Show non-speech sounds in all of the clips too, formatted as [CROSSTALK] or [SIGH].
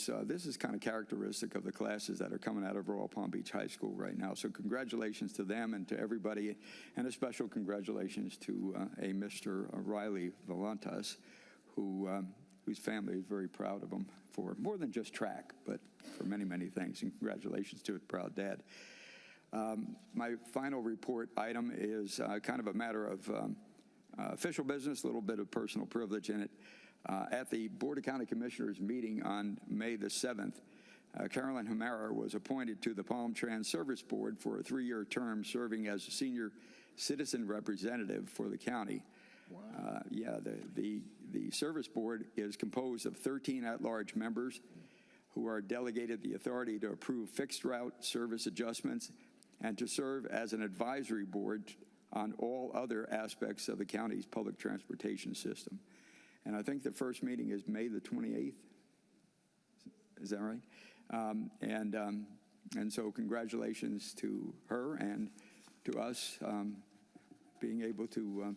So this is kind of characteristic of the classes that are coming out of Royal Palm Beach High School right now. So congratulations to them and to everybody, and a special congratulations to uh, a Mr. Riley Valantas, who um, whose family is very proud of him for more than just track, but for many many things. And congratulations to his proud dad. Um, My final report item is uh, kind of a matter of um, uh, official business, a little bit of personal privilege in it. Uh, At the Board of County Commissioners meeting on May the 7th, uh, Carolyn Hamara was appointed to the Palm Trans Service Board for a three-year term, serving as a senior citizen representative for the county. Uh, Yeah, the, the, the service board is composed of 13 at-large members who are delegated the authority to approve fixed route service adjustments and to serve as an advisory board on all other aspects of the county's public transportation system. And I think the first meeting is May the 28th. Is that right? Um, and, um, and so congratulations to her and to us um, being able to um,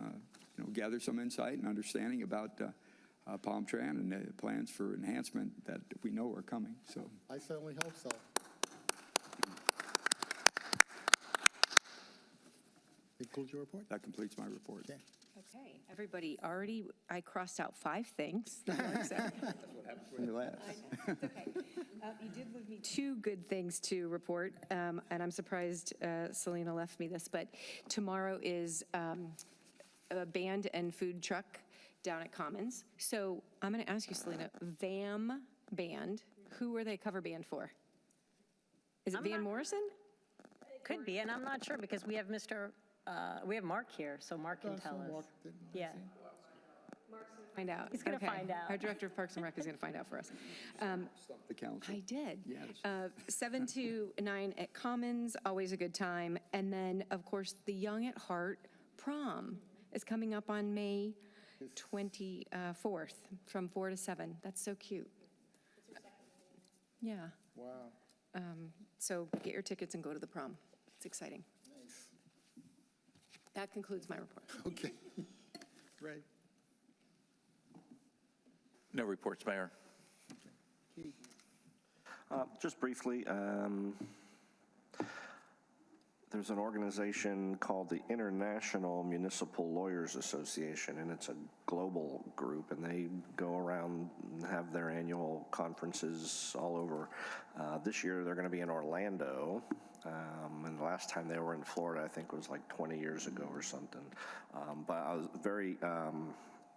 uh, you know, gather some insight and understanding about uh, uh, Palm Tran and the plans for enhancement that we know are coming. So I certainly hope so. Concludes your report? that completes my report. Okay. Okay, everybody, already, I crossed out five things. When you last. Uh, You did leave me two good things to report, um, and I'm surprised uh, Selena left me this, but tomorrow is um, a band and food truck down at Commons. So I'm going to ask you, Selena, VAM Band, who are they cover band for? Is it I'm Van not- Morrison? Could be, and I'm not sure because we have Mr., uh, we have Mark here, Oh, so Mark can tell us. Yeah. Find out. He's gonna Okay. find out. Our Director of Parks and Rec is going to find out for us. Um, The council. I did. Yes. Uh, Seven [LAUGHS] to nine at Commons, always a good time. And then, of course, the Young at Heart prom is coming up on May 24th from 4 to 7. That's so cute. Yeah, Wow. so get your tickets and go to the prom. It's exciting. That concludes my report. Okay. [LAUGHS] Right. No reports, Mayor. Uh, Just briefly, um, there's an organization called the International Municipal Lawyers Association, and it's a global group, and they go around and have their annual conferences all over. Uh, This year, they're going to be in Orlando, um, and the last time they were in Florida, I think, was like 20 years ago or something. Um, But I was very um,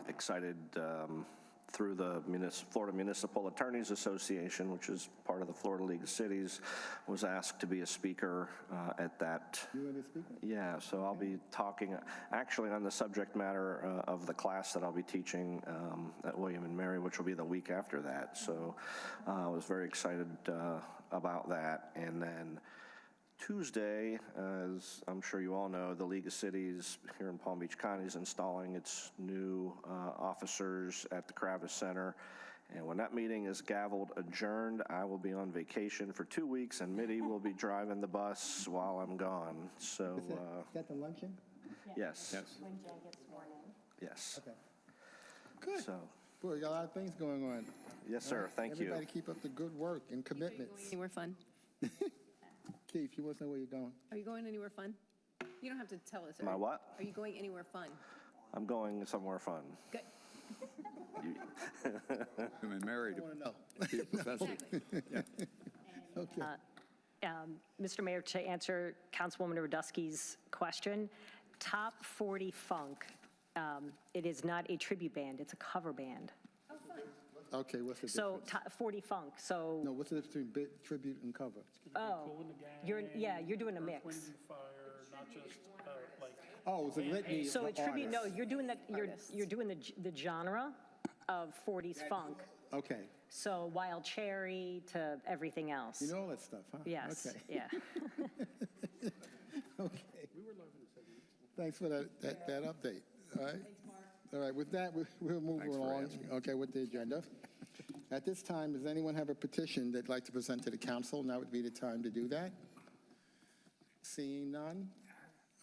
excited um, through the munis- Florida Municipal Attorneys Association, which is part of the Florida League of Cities, was asked to be a speaker uh, at that. You and the speaker? Yeah, so I'll be talking, actually, on the subject matter uh, of the class that I'll be teaching um, at William and Mary, which will be the week after that. So uh, I was very excited uh, about that. And then Tuesday, as I'm sure you all know, the League of Cities here in Palm Beach County is installing its new uh, officers at the Kravis Center. And when that meeting is gavelled adjourned, I will be on vacation for two weeks, and Mitty will [LAUGHS] be driving the bus while I'm gone. So, Is that- uh, is that the luncheon? yes, When Jan gets sworn in. yes. Okay. Good. So, Boy, you got a lot of things going on. yes, sir, thank you. Everybody keep up the good work and commitments. Anywhere fun? Keith, you want to know where you're going? Are you going anywhere fun? You don't have to tell us. My what? Are you going anywhere fun? I'm going somewhere fun. Good. Women married I want to know. to be a professor. Okay. Um, Mr. Mayor, to answer Councilwoman Radusky's question, Top 40 Funk, um, it is not a tribute band, it's a cover band. Okay, what's the So, difference? Top 40 Funk, No, so, what's the difference between bit- tribute and cover? oh, you're, yeah, you're doing a mix. fire, not just uh, like Oh, it's a litany of So a tribute, no, artists. you're doing that, you're, you're doing the, g- the genre of 40s funk. Okay. So Wild Cherry to everything else. You know all that stuff, huh? Yes, Okay. yeah. [LAUGHS] Okay. Thanks for that, that, that update. All right. All right, with that, we- we'll move Thanks for along. asking. Okay, with the agenda. At this time, does anyone have a petition they'd like to present to the council? Now would be the time to do that. Seeing none,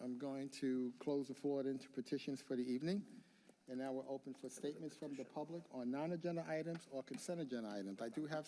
I'm going to close the floor into petitions for the evening. And now we're open for statements from the public on non-agenda items or consent agenda items. I do have some